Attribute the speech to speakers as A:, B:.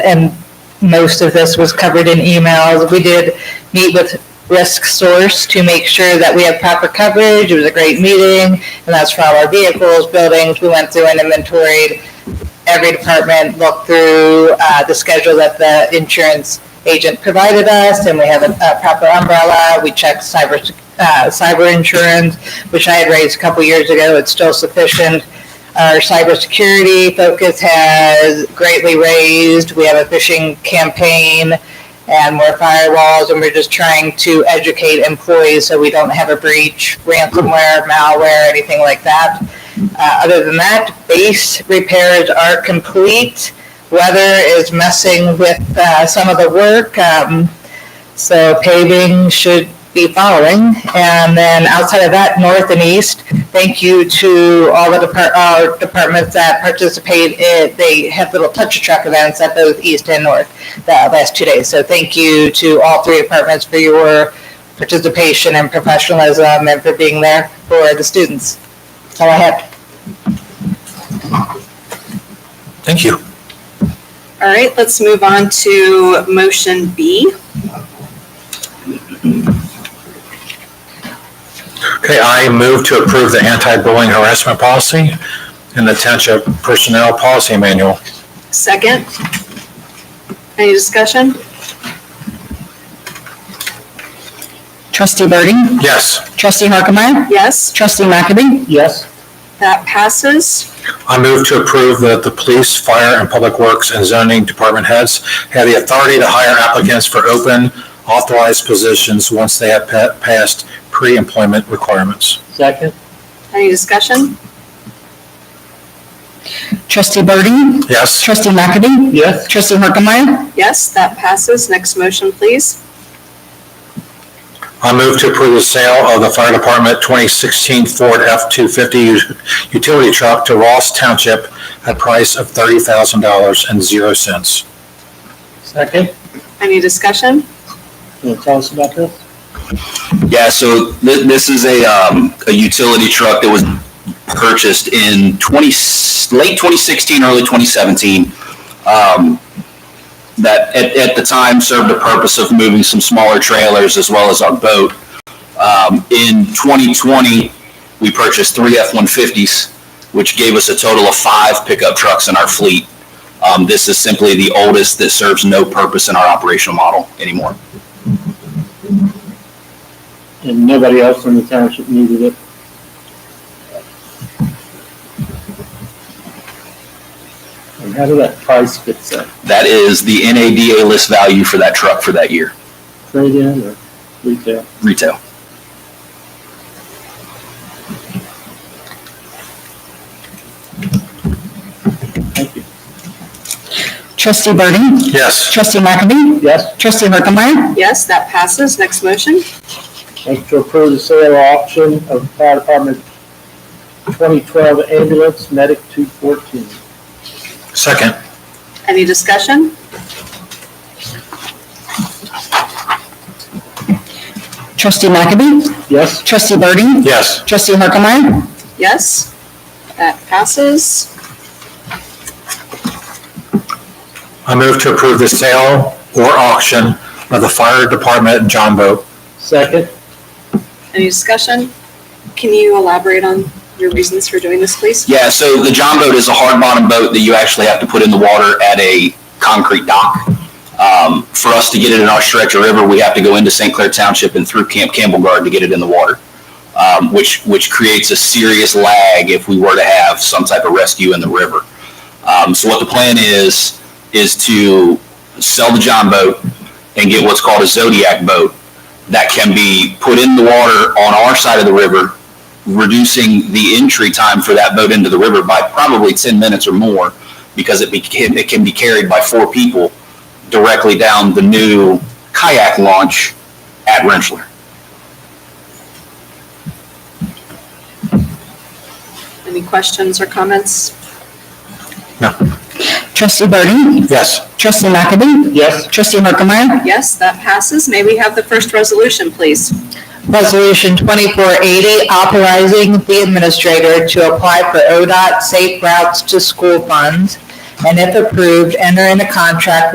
A: and most of this was covered in emails. We did meet with Risk Source to make sure that we have proper coverage. It was a great meeting, and that's for all our vehicles, buildings. We went through and inventoried every department, looked through uh, the schedule that the insurance agent provided us, and we have a a proper umbrella. We checked cyber, uh, cyber insurance, which I had raised a couple years ago. It's still sufficient. Our cybersecurity focus has greatly raised. We have a phishing campaign and more firewalls, and we're just trying to educate employees so we don't have a breach, ransomware, malware, anything like that. Uh, other than that, base repairs are complete. Weather is messing with uh, some of the work, um, so paving should be following. And then outside of that, north and east, thank you to all the depart- our departments that participate. in- They have little touch a truck events at both east and north the last two days. So thank you to all three departments for your participation and professionalism and for being there for the students. That's all I have.
B: Thank you.
C: All right, let's move on to motion B.
B: Okay, I move to approve the anti-bullying harassment policy and the township personnel policy manual.
C: Second. Any discussion?
D: Trustee Birding?
B: Yes,
D: Trustee Harkemaier?
C: Yes,
D: Trustee McAbey?
A: Yes.
C: that passes.
B: I move to approve that the police, fire, and public works and zoning department heads have the authority to hire applicants for open authorized positions once they have pa- passed pre-employment requirements.
A: Second?
C: Any discussion?
D: Trustee Birding?
B: Yes,
D: Trustee McAbey?
A: Yes.
D: Trustee Harkemaier?
C: Yes, that passes. Next motion, please.
B: I move to approve the sale of the fire department 2016 Ford F-250 utility truck to Ross Township at price of $30,000 and zero cents.
A: Second?
C: Any discussion?
A: Can you tell us about this?
E: Yeah, so th- this is a, um, a utility truck that was purchased in twenty, late twenty sixteen, early twenty seventeen. Um, that at, at the time served the purpose of moving some smaller trailers as well as our boat. Um, in twenty twenty, we purchased three F-150s, which gave us a total of five pickup trucks in our fleet. Um, this is simply the oldest that serves no purpose in our operational model anymore.
F: and nobody else in the township needed it. And how did that price fit that?
E: That is the NADA list value for that truck for that year,
F: Trade-in or retail?
E: retail.
F: Thank you.
D: Trustee Birding?
B: Yes,
D: Trustee McAbey?
F: Yes,
D: Trustee Harkemaier?
C: Yes, that passes. Next motion.
F: motion to approve the sale auction of fire department 2012 ambulance medic 214.
B: second.
C: Any discussion?
D: Trustee McAbey?
F: Yes,
D: Trustee Birding?
B: Yes,
D: Trustee Harkemaier?
C: Yes, that passes.
B: I move to approve the sale or auction of the fire department John boat.
F: second,
C: Any discussion? Can you elaborate on your reasons for doing this, please?
E: Yeah, so the John boat is a hard bottom boat that you actually have to put in the water at a concrete dock. Um, for us to get it in our stretch of river, we have to go into St. Clair Township and through Camp Campbell Guard to get it in the water. Um, which, which creates a serious lag if we were to have some type of rescue in the river. Um, so what the plan is, is to sell the John boat and get what's called a Zodiac boat that can be put in the water on our side of the river reducing the entry time for that boat into the river by probably 10 minutes or more because it, be, it can be carried by four people directly down the new kayak launch at Rensselaer.
C: Any questions or comments?
D: Trustee Birding?
B: Yes,
D: Trustee McAbey?
F: yes,
D: Trustee Harkemaier?
C: Yes, that passes. May we have the first resolution, please?
A: Resolution 2480, authorizing the administrator to apply for ODOT Safe Routes to School funds, and if approved, enter into contract